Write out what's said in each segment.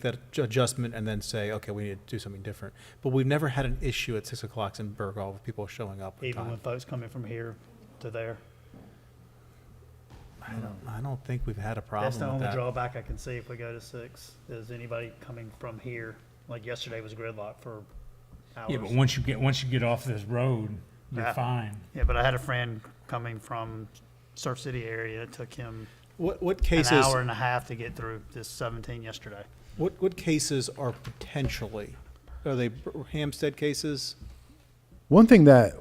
that adj- adjustment and then say, okay, we need to do something different. But we've never had an issue at six o'clock in Burgal with people showing up on even when time. folks coming from here to there. I don't, I don't think we've had a problem That's with the only that. drawback I can see if we go to six, is anybody coming from here, like yesterday was gridlock for hours. Yeah, but once you get, once you get off this road, Yeah. you're fine. Yeah, but I had a friend coming from Surf City area, it took him What, what an cases, hour and a half to get through this seventeen yesterday. what, what cases are potentially, are they b- Hampstead cases? One thing that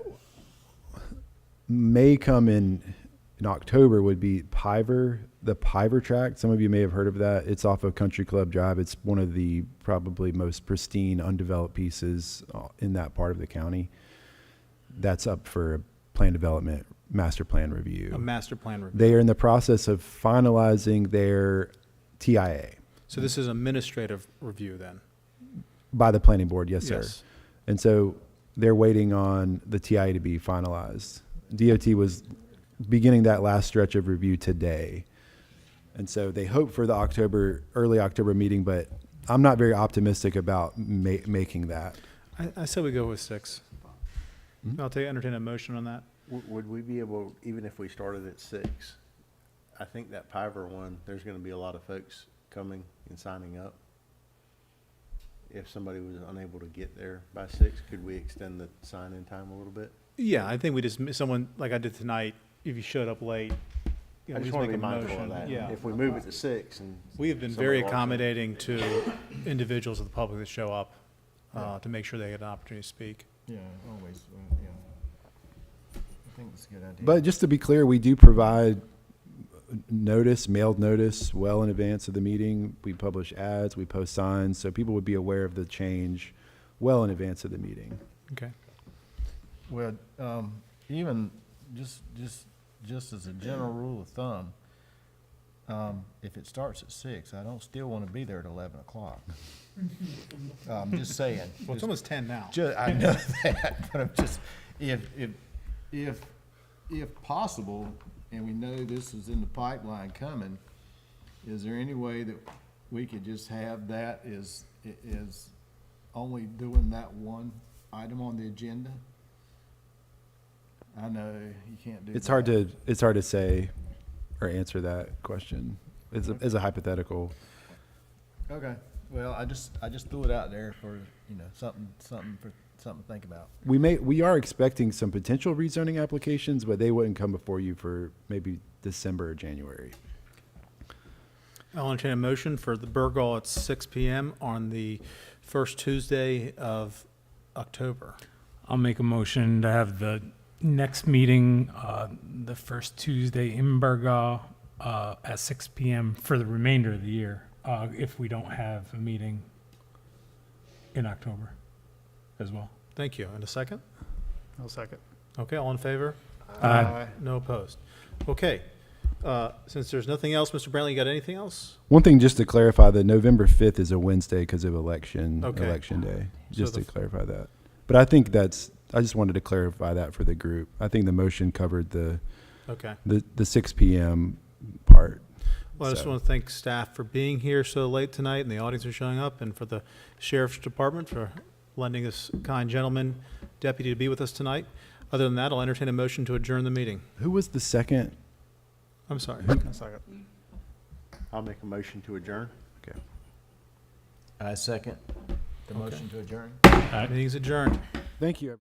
may come in in October would be Piver, the Piver track. Some of you may have heard of that. It's off of Country Club Drive. It's one of the probably most pristine undeveloped pieces uh, in that part of the county. That's up for plan development, master plan review. A master plan review. they are in the process of finalizing their TIA So this is administrative review then? by the planning board. Yes, sir. Yes. And so they're waiting on the TIA to be finalized. DOT was beginning that last stretch of review today. And so they hope for the October, early October meeting, but I'm not very optimistic about ma- making that. I, I said we go with six. I'll take, entertain a motion on that. W- Would we be able, even if we started at six, I think that Piver one, there's gonna be a lot of folks coming and signing up. If somebody was unable to get there by six, could we extend the sign-in time a little bit? Yeah, I think we just, someone, like I did tonight, if you showed up late, you I just know, we just wanna make be a mindful of motion. that. Yeah. If we move it to six and. We have been somebody very walks in- accommodating to individuals of the public that show up, uh, to make sure they get an opportunity to speak. Yeah, always, uh, yeah. I think it's a good idea. But just to be clear, we do provide notice, mailed notice, well in advance of the meeting. We publish ads, we post signs, so people would be aware of the change well in advance of the meeting. Okay. Well, um, even, just, just, just as a general rule of thumb, um, if it starts at six, I don't still wanna be there at eleven o'clock. I'm just saying. Well, it's just- almost ten now. Ju- I know that, but I'm just, if, if, if, if possible, and we know this is in the pipeline coming, is there any way that we could just have that is, i- is only doing that one item on the agenda? I know you can't do. It's hard that. to, it's hard to say or answer that question. It's Mm-hmm. a, it's a hypothetical. Okay, well, I just, I just threw it out there for, you know, something, something, for something to think about. We may, we are expecting some potential rezoning applications, but they wouldn't come before you for maybe December or January. I'll entertain a motion for the Burgal at six PM on the first Tuesday of October. I'll make a motion to have the next meeting, uh, the first Tuesday in Burgaw, uh, at six PM for the remainder of the year, uh, if we don't have a meeting in October as well. Thank you. And a second? I'll second. Okay, all in favor? Aye. No opposed. Okay. Uh, since there's nothing else, Mr. Brantley, you got anything else? One thing, just to clarify, that November fifth is a Wednesday because of election, Okay. election day, So just the to f- clarify that. But I think that's, I just wanted to clarify that for the group. I think the motion covered the, Okay. the, the six PM part. Well, I just So- want to thank staff for being here so late tonight and the audience for showing up and for the sheriff's department for lending this kind gentleman deputy to be with us tonight. Other than that, I'll entertain a motion to adjourn the meeting. Who was the second? I'm sorry. I'll second. I'll make a motion to adjourn. Okay. I second the motion to adjourn. Uh, Meeting's adjourned. Thank you.